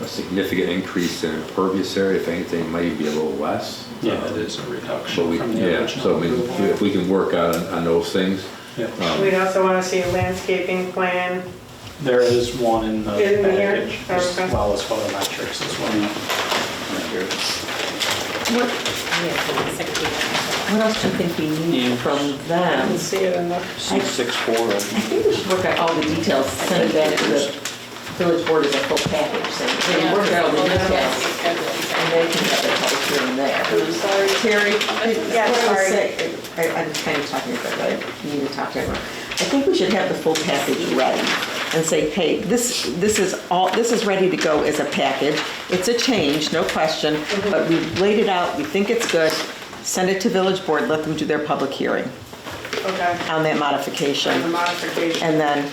a significant increase in impervious area, if anything, maybe a little less. Yeah, it is a So reduction we, from the yeah, so original I mean, if approval. we can work on, on those things. Yeah. um, We'd also want to see a landscaping plan. There is one in the In here? package, as Okay. well as photometrics as well. What, what else do you think we Yeah. need from I them? didn't see it in the, C six four I think we should work out all the details, send it back to the village board as a full package, so we can work out all the details. And they can have their public hearing there. I'm sorry. Terry, Yeah, what I was sorry. saying, I- I'm kind of talking about, but I need to talk to everyone. I think we should have the full package ready and say, hey, this, this is all, this is ready to go as a package. It's a change, no question, Mm-hmm. but we've laid it out, we think it's good. Send it to village board, let them do their public hearing okay, on that on the modification modification. and then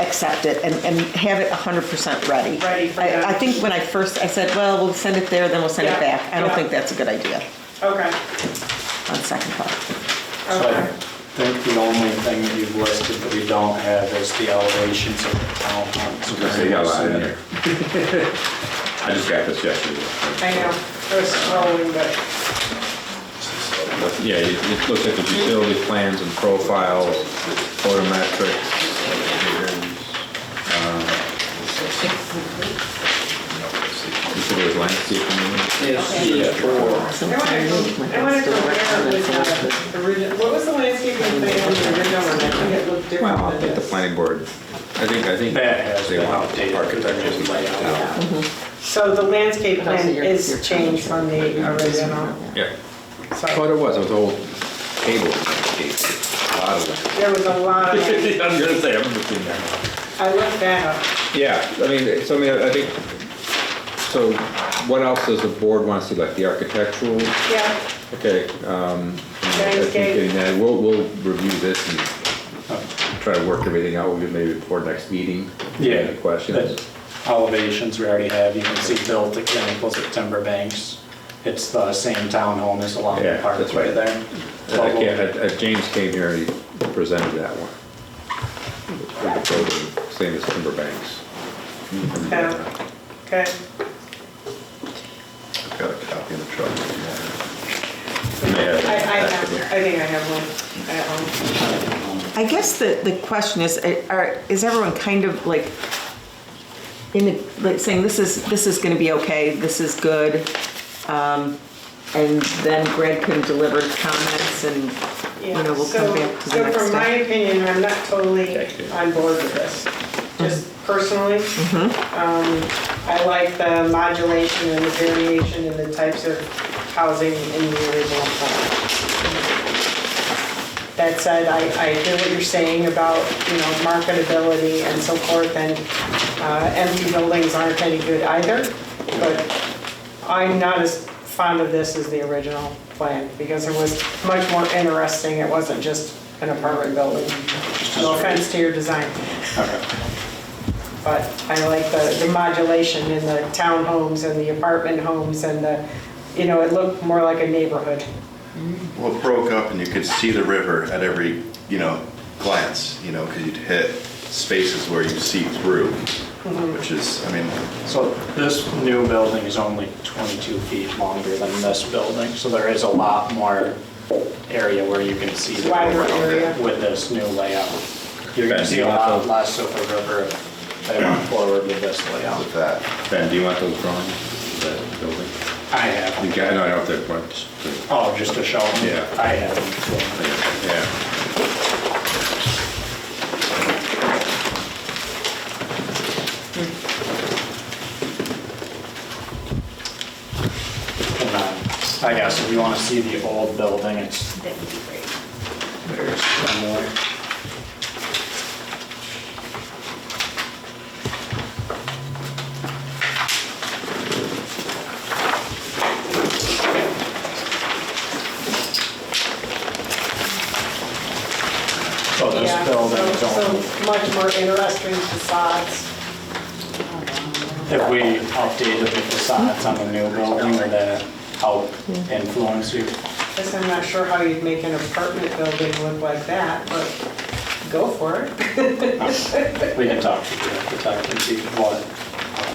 accept it and, and have it 100% ready. Ready for I- them. I think when I first, I said, well, we'll send it there, then we'll send it Yeah, back. I don't yeah. think that's a good idea Okay, on second thought. So I okay. think the only thing that you've listed that we don't have is the elevations of the I was gonna say, yeah, I- townhomes. I just got this yesterday. I know, I was scrolling, but, Yeah, it it looks at the utility plans and profiles, uh, photometrics. um, You said there's landscaping. in it? Yeah, four. I want to, I want to compare the original, what was the landscaping plan on the original one? I think it looked different Well, I than think the this. planning board, I think, I think. That has they been want updated. Architectures and layout. So the landscape But also plan your- your is changed from the original. Yeah, but So it was, it was old table landscape, a lot of that. there was a lot of, I I'm gonna say, I'm just in there. looked that up. Yeah, I mean, so I mean, I think, so what else does the board want to see, like the architectural? Yeah, Okay, um, I think Landscape. getting that, we'll, we'll review this and try to work everything out, we'll maybe before next meeting. Yeah. Any questions? the Elevations we already have, you can see built examples at Timber Banks. It's the same townhome as along Yeah, the that's parkway right. there. And I can't, I- I- James came here and he presented that one. With the building, Same as Timberbanks. Yeah. Oh, okay. Got a copy in the truck. You may have it. I, I have, I think I have one at home. I guess the, the question is, eh, are, is everyone kind of like, in the, like saying, this is, this is gonna be okay, this is good? um, And then Greg can deliver comments and, you Yeah. know, we'll So- come back to the next So from my step. opinion, I'm not totally Okay. on board with this, Mm-hmm. just personally. Um, I like the modulation and the variation in the types of housing in the original plan. That said, I, I hear what you're saying about, you know, marketability and so forth, and uh, empty buildings aren't any good either, but I'm not as fond of this as the original plan, because it was much more interesting, it wasn't just an apartment building. No offense to your design, but I like the, the modulation in the townhomes and the apartment homes and the, you know, it looked more like a neighborhood. Well, it broke up and you could see the river at every, you know, glance, you know, because you'd hit spaces where you see through, which is, I mean, So this new building is only 22 feet longer than this building, so there is a lot more area where you can see the Wider river area. with this new layout. You're going to see a lot less of the river if they went forward with this with layout. that, Ben, do you want those drawings, of that building? I have, You them. got, no, I don't have that one. oh, just to show them? Yeah. I have. them. Yeah. And then, I guess if you want to see the old building, it's That would be great. very similar. So this Yeah, building is so- only, So much more interesting facades. if we updated the facades on the new building, would that help influence you? Guess I'm not sure how you'd make an apartment building look like that, but go for it. We can talk to the architect and see what